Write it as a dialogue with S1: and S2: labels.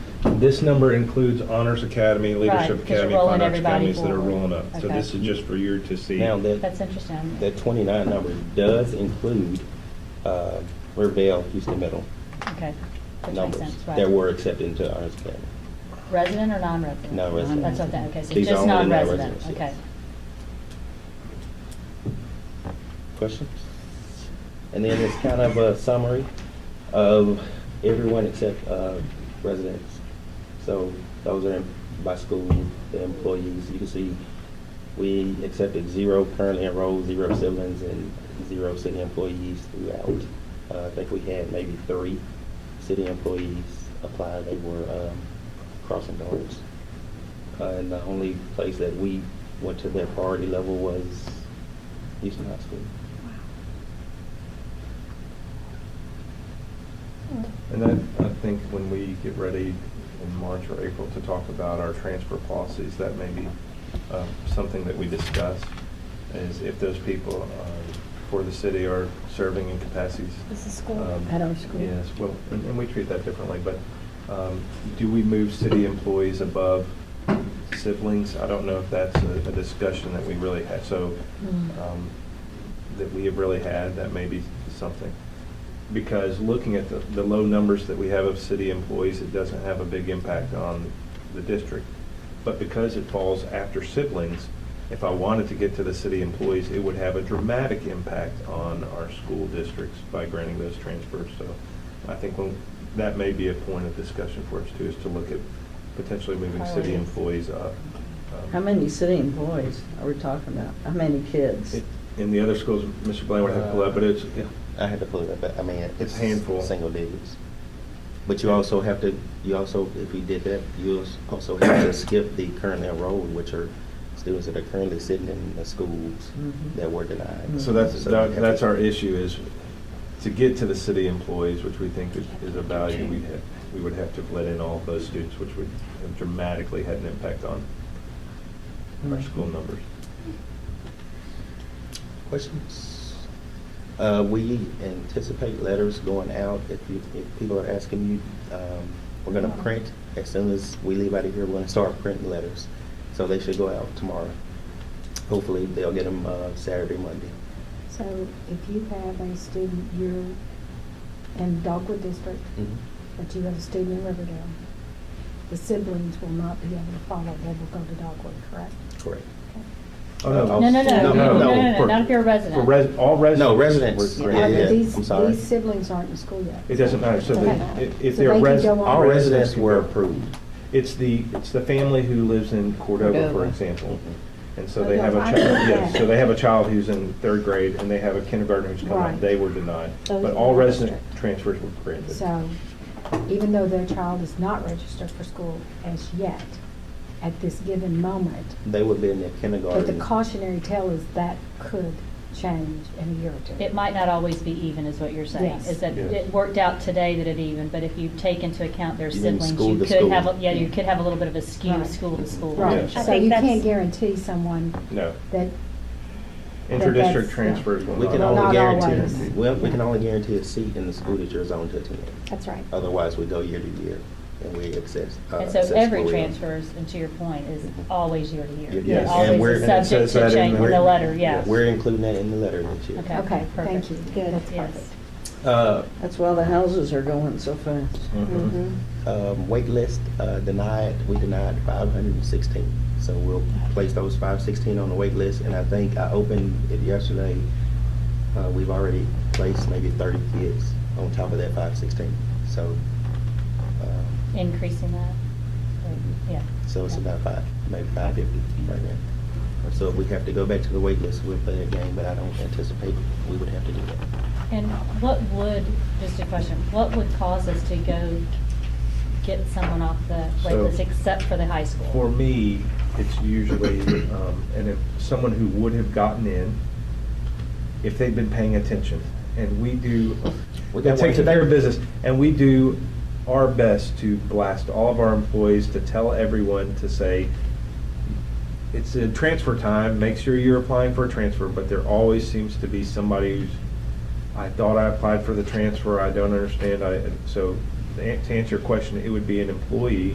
S1: This number includes Honors Academy,
S2: Right,
S1: Leadership
S2: 'cause you're
S1: Academy,
S2: rolling
S1: Conduct
S2: everybody
S1: Academies that are
S2: forward.
S1: rolling up. So
S2: Okay.
S1: this is just for you to see.
S3: Now,
S2: That's
S3: that,
S2: interesting.
S3: that 29 number does include uh, Revelle, Houston Middle
S2: Okay. Which makes
S3: numbers
S2: sense,
S3: that
S2: right.
S3: were accepted into Honors Academy.
S2: Resident or non-resident?
S3: Non-resident.
S2: That's what that, okay, so
S3: These are
S2: just
S3: only the
S2: non-resident, okay.
S3: non-residents, yes. Questions? And then it's kind of a summary of everyone except uh, residents. So those are by school, the employees. You can see we accepted zero currently enrolled, zero siblings, and zero city employees throughout. Uh, I think we had maybe three city employees apply. They were um, crossing guards. Uh, And the only place that we went to their priority level was Houston High School.
S4: And then I think when we get ready in March or April to talk about our transfer policies, that may be uh, something that we discuss, is if those people uh, for the city are serving in capacities.
S5: This is school.
S4: um,
S5: At our school.
S4: Yes, well, and and we treat that differently, but um, do we move city employees above siblings? I don't know if that's a a discussion that we really had, so,
S5: Mm.
S4: um, that we have really had, that may be something because looking at the, the low numbers that we have of city employees, it doesn't have a big impact on the district. But because it falls after siblings, if I wanted to get to the city employees, it would have a dramatic impact on our school districts by granting those transfers. So I think when- that may be a point of discussion for us too, is to look at potentially moving city
S2: Priorities.
S4: employees up. Um,
S6: How many city employees are we talking about? How many kids?
S4: it- In the other schools, Mr. Blaine would have
S3: Uh,
S4: to pull up, but it's,
S3: I had to pull it up, but I mean,
S4: It's
S3: it's
S4: handful.
S3: single digits. But you also have to, you also, if you did that, you also have to skip the currently enrolled, which are students that are currently sitting in the schools
S6: Mhm.
S3: that were denied.
S4: So that's,
S3: you
S4: that-
S3: have to-
S4: that's our issue is to get to the city employees, which we think is, is a value, we'd have, we would have to have let in all of those students, which would have dramatically had an impact on
S3: Mm-hmm.
S4: our school numbers.
S3: Questions? Uh, we anticipate letters going out, if you, if people are asking you, um, we're gonna print, as soon as we leave out of here, we're gonna start printing letters. So they should go out tomorrow. Hopefully, they'll get them, uh, Saturday, Monday.
S7: So if you have a student, you're in Dogwood District,
S3: Mm. Mm-hmm.
S7: but you have a student in Riverdale, the siblings will not be able to follow, they will go to Dogwood, correct?
S3: Correct.
S4: Oh, no.
S3: No,
S2: No, no, no, no,
S4: No,
S2: no,
S4: no,
S2: no, no,
S4: for-
S2: not if you're a
S4: For
S2: resident.
S4: res, all residents.
S3: No, residents.
S4: were-
S3: Yeah, yeah,
S7: Uh,
S3: yeah.
S7: these-
S3: I'm sorry.
S7: These siblings aren't in school yet.
S4: It doesn't matter, so they-
S7: Okay.
S4: if- if
S7: So
S4: they're
S7: they can
S4: res-
S7: go on.
S3: All residents were
S4: Residents.
S3: approved.
S4: It's the, it's the family who lives in Cordova, for
S5: Cordova.
S4: example.
S3: Mm-hmm.
S4: And so
S7: Oh,
S4: they
S7: no,
S4: have a
S7: I
S4: child,
S7: know
S4: yes,
S7: that.
S4: so they have a child who's in third grade and they have a kindergartner who's coming,
S7: Right.
S4: they were denied.
S7: Those
S4: But
S7: were
S4: all
S7: not
S4: resident
S7: restricted.
S4: transfers were granted.
S7: So even though their child is not registered for school as yet, at this given moment,
S3: They would be in their kindergarten.
S7: but the cautionary tale is that could change in a year or two.
S2: It might not always be even, is what you're saying.
S7: Yes.
S2: Is that
S4: Yeah.
S2: it worked out today that it even, but if you take into account their
S3: You mean
S2: siblings,
S3: school
S2: you
S3: to
S2: could
S3: school.
S2: have, a- yeah, you could have a little bit of a skew,
S7: Mm-hmm. Right.
S2: school to school.
S7: Right,
S4: Yes. I
S7: so
S5: think
S7: you
S5: that's-
S7: can't guarantee someone
S4: No.
S7: that,
S4: Inter-district
S7: that's-
S4: transfers will
S3: We can
S4: not-
S3: only
S7: Not
S3: guarantee,
S7: always.
S3: well, we can only guarantee a seat in the school that you're zoned to attend.
S7: that's right.
S3: Otherwise, we go year to year and we access. uh,
S2: And so
S3: assess
S2: every
S3: where we are.
S2: transfers, and to your point, is always year to year.
S3: Yes.
S2: They're
S3: And we're-
S2: Always
S3: and it
S2: is
S4: says
S2: subject
S4: that
S2: to
S4: in
S2: change in
S3: the-
S2: the letter, yes.
S4: Yes.
S3: We're including that in the letter this year.
S2: Okay.
S7: Okay,
S2: perfect.
S7: thank you. Good, that's
S2: Yes.
S7: perfect.
S3: Uh,
S6: That's why the houses are going so fast.
S4: Mhm.
S3: um, wait list uh, denied, we denied 516. So we'll place those 516 on the wait list, and I think I opened it yesterday. Uh, We've already placed maybe 30 kids on top of that 516. So, um,
S2: Increasing that, or- yeah.
S3: so it's about five, maybe 550 right now. So if we have to go back to the wait list, we'll play that game, but I don't anticipate we would have to do that.
S2: And what would, just a question, what would cause us to go get someone off the wait
S4: So-
S2: list except for the high school?
S4: For me, it's usually, um, and if someone who would have gotten in, if they've been paying attention, and we do,
S3: We
S4: that
S3: got
S4: takes
S3: one today.
S4: care of business, and we do our best to blast all of our employees, to tell everyone, to say, it's a transfer time, make sure you're applying for a transfer, but there always seems to be somebody who's, I thought I applied for the transfer, I don't understand, I, so, to an- to answer your question, it would be an employee